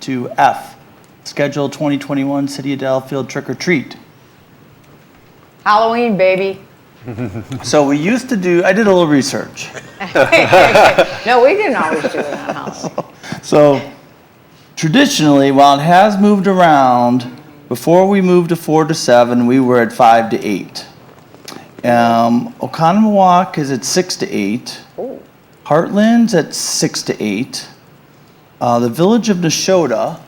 to F, Schedule 2021 City of Delafield Trick or Treat. Halloween, baby. So we used to do, I did a little research. No, we didn't always do it on Halloween. So traditionally, while it has moved around, before we moved to four to seven, we were at five to eight. Um, Oconomowoc is at six to eight. Heartland's at six to eight. Uh, the village of Neshota,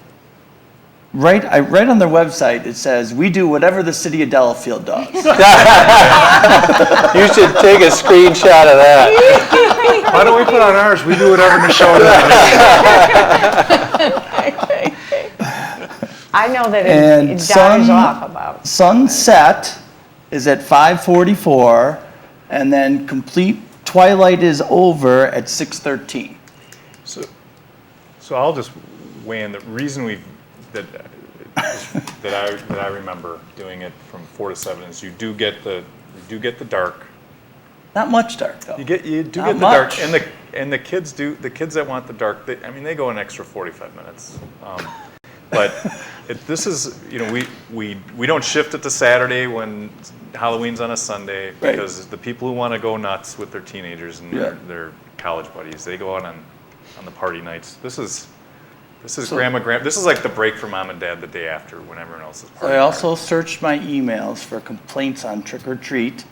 right, I, right on their website, it says, we do whatever the city of Delafield does. You should take a screenshot of that. Why don't we put on ours? We do whatever Michelle does. I know that And it, it dies some- off about. Sunset is at 5:44, and then complete twilight is over at 6:13. So, so I'll just weigh in. The reason we that that I that I remember doing it from four to seven is you do get the you do get the dark. Not much dark though. You get you do Not get the much. dark, and the and the kids do the kids that want the dark. They, I mean, they go an extra forty five minutes. Um, but it, this is you know we we we don't shift it to Saturday when Halloween's on a Sunday Right. because the people who want to go nuts with their teenagers and Yeah. their, their college buddies they go out on on the party nights. This is. This is grandma, grandma. This is like the break for mom and dad the day after when everyone else is partying. I also searched my emails for complaints on trick or treat,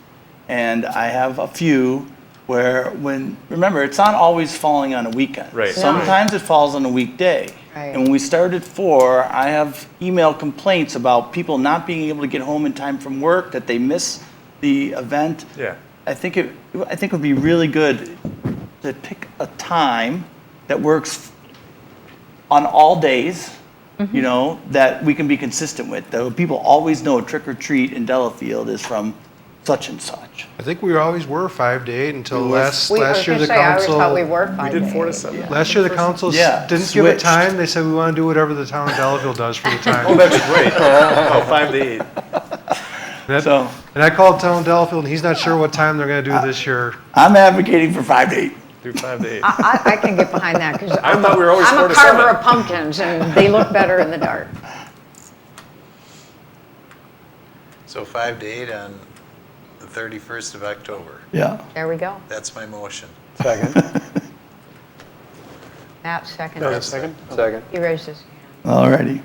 and I have a few where when remember it's not always falling on a weekend. Right. No. Sometimes it falls on a weekday. Right. And when we started four, I have email complaints about people not being able to get home in time from work that they miss the event. Yeah. I think it, I think it would be really good to pick a time that works on all days, you know, that we can be consistent with. Though people always know trick or treat in Delafield is from such and such. I think we always were five to eight until We were- last, We, I was last year gonna say, the I always council. thought we were We five did to four to eight. seven. Last year the council s- Yeah, didn't give it switched. time. They said we want to do whatever the town of Delafield does for the Oh, time. that's right. oh, five to eight. That- So Uh, And I called town Delafield and he's not sure what time they're going to do this year. I'm advocating for five to eight. Do five to eight. I, I I can get behind that because I thought we were always four I'm a to carver seven. of pumpkins and they look better in the dark. So five to eight on the 31st of October. Yeah. There we go. That's my motion. Second. Matt seconded. second? Second. He raised his hand. Alrighty.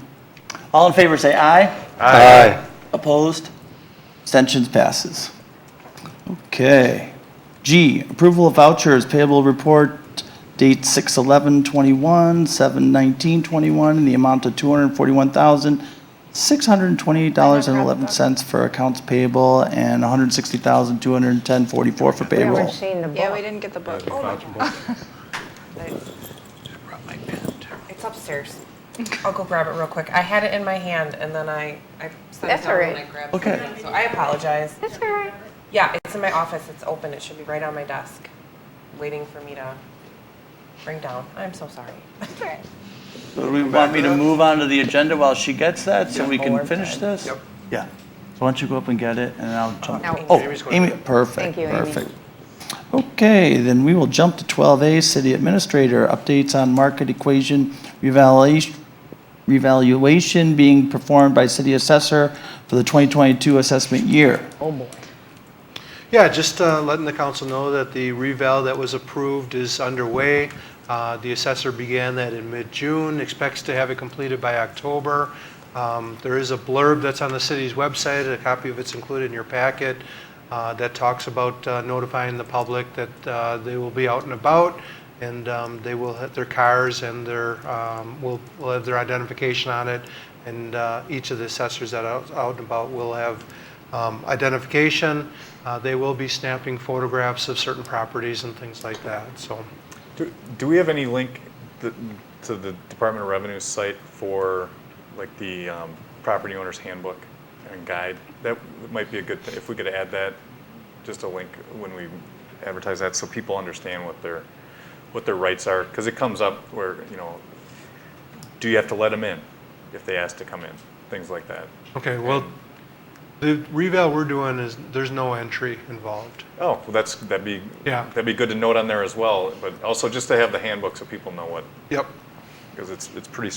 All in favor, say aye. Aye. Opposed? Abstentions passes. Okay. G, approval of vouchers payable report date 6/11/21, 7/19/21, in the amount of $241,628.11 for accounts payable and $160,210.44 for We haven't payroll. seen the Yeah, we book. didn't get the book. Oh my God. It's upstairs. I'll go grab it real quick. I had it in my hand and then I, I set That's it down all and right. I grabbed Okay. something. So I apologize. That's all right. Yeah, it's in my office. It's open. It should be right on my desk, waiting for me to bring down. I'm so sorry. Do we want me to move on to the agenda while she gets that, so we can Forward. finish this? Yep. Yeah. So why don't you go up and get it, and I'll jump. Now- Oh, Amy, perfect, Thank you, Amy. perfect. Okay, then we will jump to 12A, City Administrator, updates on market equation revaluation, revaluation being performed by City Assessor for the 2022 assessment year. Yeah, just uh, letting the council know that the reval that was approved is underway. Uh, The assessor began that in mid-June, expects to have it completed by October. Um, There is a blurb that's on the city's website, a copy of it's included in your packet, uh, that talks about uh, notifying the public that uh, they will be out and about, and um, they will have their cars and their, um, will will have their identification on it, and uh, each of the assessors that are out- out and about will have um, identification. Uh, They will be snapping photographs of certain properties and things like that, so. Do, do we have any link th- to the Department of Revenue site for like the um, property owner's handbook and guide? That might be a good thing if we could add that, just a link when we advertise that, so people understand what their what their rights are, because it comes up where you know, do you have to let them in if they ask to come in, things like that. Okay, well, the reval we're doing is, there's no entry involved. Oh, well, that's that'd be Yeah. that'd be good to note on there as well, but also just to have the handbook so people know what Yep. because it's it's pretty